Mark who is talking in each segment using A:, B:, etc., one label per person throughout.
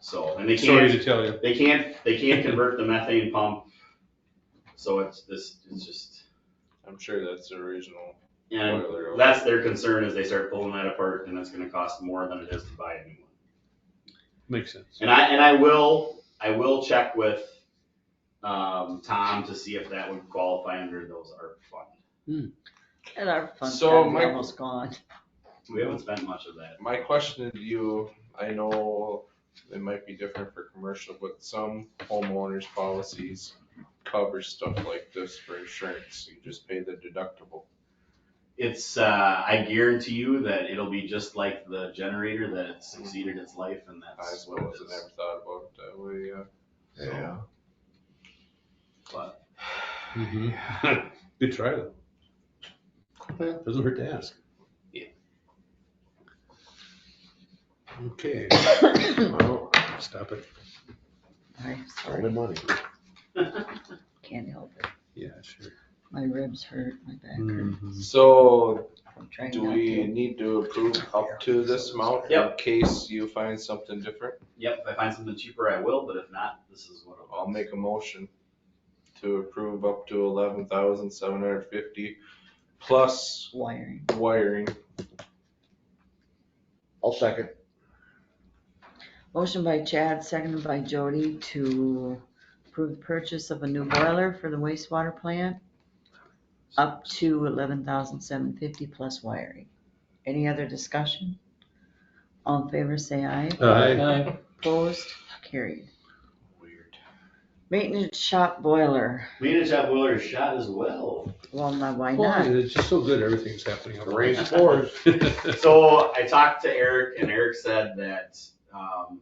A: So, and they
B: Sorry
A: can't,
B: to tell you.
A: they can't, they can't convert the methane pump. So it's this, it's just,
C: I'm sure that's the original
A: and
C: boiler.
A: that's their concern is they start pulling that apart and that's gonna cost more than it is to buy a new one.
B: Makes sense.
A: And I, and I will, I will check with, um, Tom to see if that would qualify under those ARP funds.
D: And our funds
C: So
D: are
C: my-
D: almost gone.
A: We haven't spent much of that.
C: My question to you, I know it might be different for commercial, but some homeowners policies cover stuff like this for insurance. You just pay the deductible.
A: It's, uh, I guarantee you that it'll be just like the generator that it
C: Mm-hmm.
A: succeeded its life and
C: I
A: that's
C: suppose
A: what it
C: I
A: is.
C: never thought about it that way, yeah.
A: So,
C: Yeah.
A: But,
B: Mhm. Good try though. Doesn't hurt to ask.
A: Yeah.
B: Okay, well, stop it.
D: I'm
E: Only
D: sorry,
E: money.
D: can't help it.
B: Yeah, sure.
D: My ribs hurt, my back hurts.
B: Mm-hmm.
C: So
D: I'm trying
C: do
D: not
C: we
D: to.
C: need to approve up to this amount in
A: Yep.
C: case you find something different?
A: yep, if I find something cheaper, I will, but if not, this is what
C: I'll make a motion to approve up to eleven thousand seven hundred fifty plus
D: Wiring.
C: wiring.
E: I'll second.
D: Motion by Chad, seconded by Jody to approve the purchase of a new boiler for the wastewater plant up to eleven thousand seven fifty plus wiring. Any other discussion? All in favor, say aye.
B: Aye.
D: Opposed? Carried.
A: Weird.
D: Maintenance shop boiler.
A: Maintenance shop boiler is shot as well.
D: Well, now why
B: Why?
D: not?
B: It's just so good, everything's happening. at
E: Raise
B: once.
E: scores.
A: So I talked to Eric and Eric said that, um,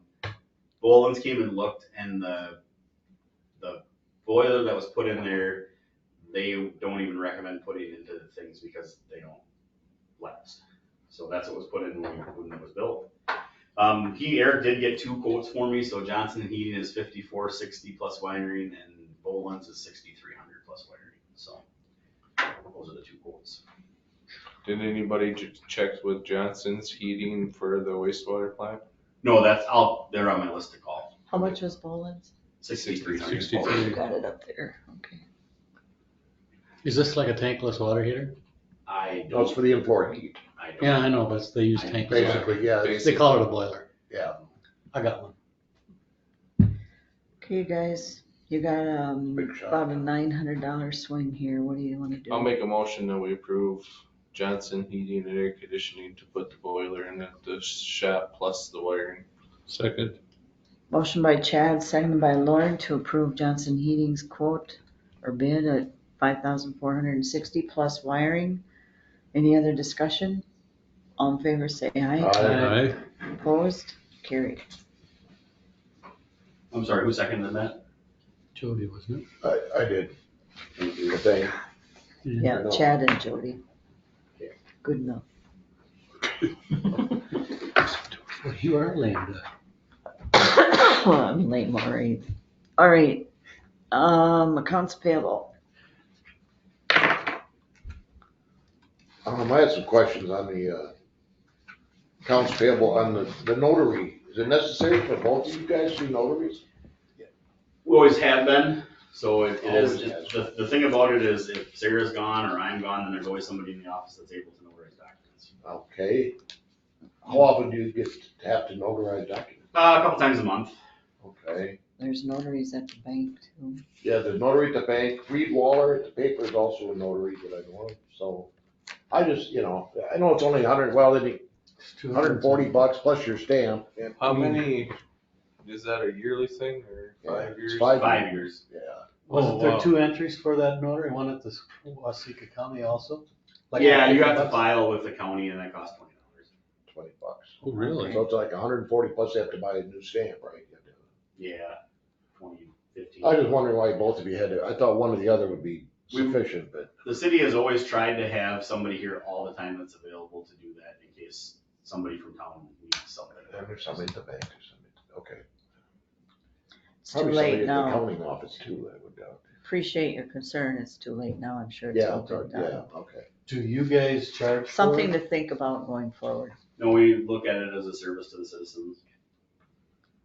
A: Bolins came and looked and the, the boiler that was put in there, they don't even recommend putting into things because they don't last. So that's what was put in when, when it was built. Um, he, Eric did get two quotes for me, so Johnson and Heating is fifty-four sixty plus wiring and Bolins is sixty-three hundred plus wiring, so. Those are the two quotes.
C: Did anybody j- check with Johnson's heating for the wastewater plant?
A: No, that's, I'll, they're on my list to call.
D: How much was Boland's?
A: Sixty-three hundred.
B: 63.
D: Got it up there, okay.
F: Is this like a tankless water heater?
A: I
E: No, Oh, it's
A: don't,
E: for the import heat,
A: I don't.
F: Yeah, I know, but they use tankless water.
E: basically, yeah, it's-
F: They call it a boiler.
E: yeah.
F: I got one.
D: Okay, guys, you got, um,
E: Big shot.
D: about a nine hundred dollar swing here, what do you wanna do?
C: I'll make a motion that we approve Johnson Heating and Air Conditioning to put the boiler in at the shop plus the wiring.
B: Second,
D: Motion by Chad, seconded by Lauren to approve Johnson Heating's quote or bid at five thousand four hundred and sixty plus wiring. Any other discussion? All in favor, say aye.
B: aye.
D: Opposed? Carried.
A: I'm sorry, who seconded that?
F: Jody, wasn't
E: I, I did.
A: Thank
E: the
A: you.
E: thing.
F: it?
D: Yeah, Chad and Jody. Good enough.
F: Well, You are lambda.
D: I'm late, Maureen. All right, um, accounts payable.
E: Um, I had some questions on the, uh, accounts payable on the, the notary. Is it necessary for both of you guys to be notaries?
A: We always have been, so it it is,
E: Always
A: it- the, the thing about it is if Sarah's gone or I'm gone, then there's always somebody in the office that's able to notarize documents.
E: Okay. How often do you get to have to notarize documents?
A: Uh, a couple times a month.
E: Okay.
D: There's notaries at the bank too.
E: Yeah, there's notary at the bank, Reed Waller at the paper is also a notary that I know of, so. I just, you know, I know it's only a hundred, well, it'd be
F: It's 200.
E: hundred and forty bucks plus your stamp. and-
C: How many, is that a yearly thing or
E: Yeah,
C: five
E: it's
C: years?
E: Five,
A: Five years.
E: yeah.
F: Wasn't
B: Oh, wow.
F: there two entries for that notary, one at the s- Waseca County also? Like
A: Yeah, you have to
F: $50?
A: file with the county and that costs twenty dollars.
E: twenty bucks.
B: Oh, really?
E: So it's like hundred and forty plus they have to buy a new stamp, right?
A: Yeah, twenty, fifteen.
E: I was just wondering why both of you had it. I thought one or the other would be
A: We-
E: sufficient, but
A: The city has always tried to have somebody here all the time that's available to do that in case somebody from town needs something.
E: there's somebody at the bank or something. Okay.
D: It's too
E: Probably somebody
D: late
E: at the
D: now.
E: Accounting office too, I would doubt.
D: Appreciate your concern. It's too late now. I'm sure it's
E: Yeah,
D: all
E: it's all-
D: been done.
E: yeah, okay.
F: Do you guys charge for
D: Something
F: it?
D: to think about going forward.
A: No, we look at it as a service to the citizens.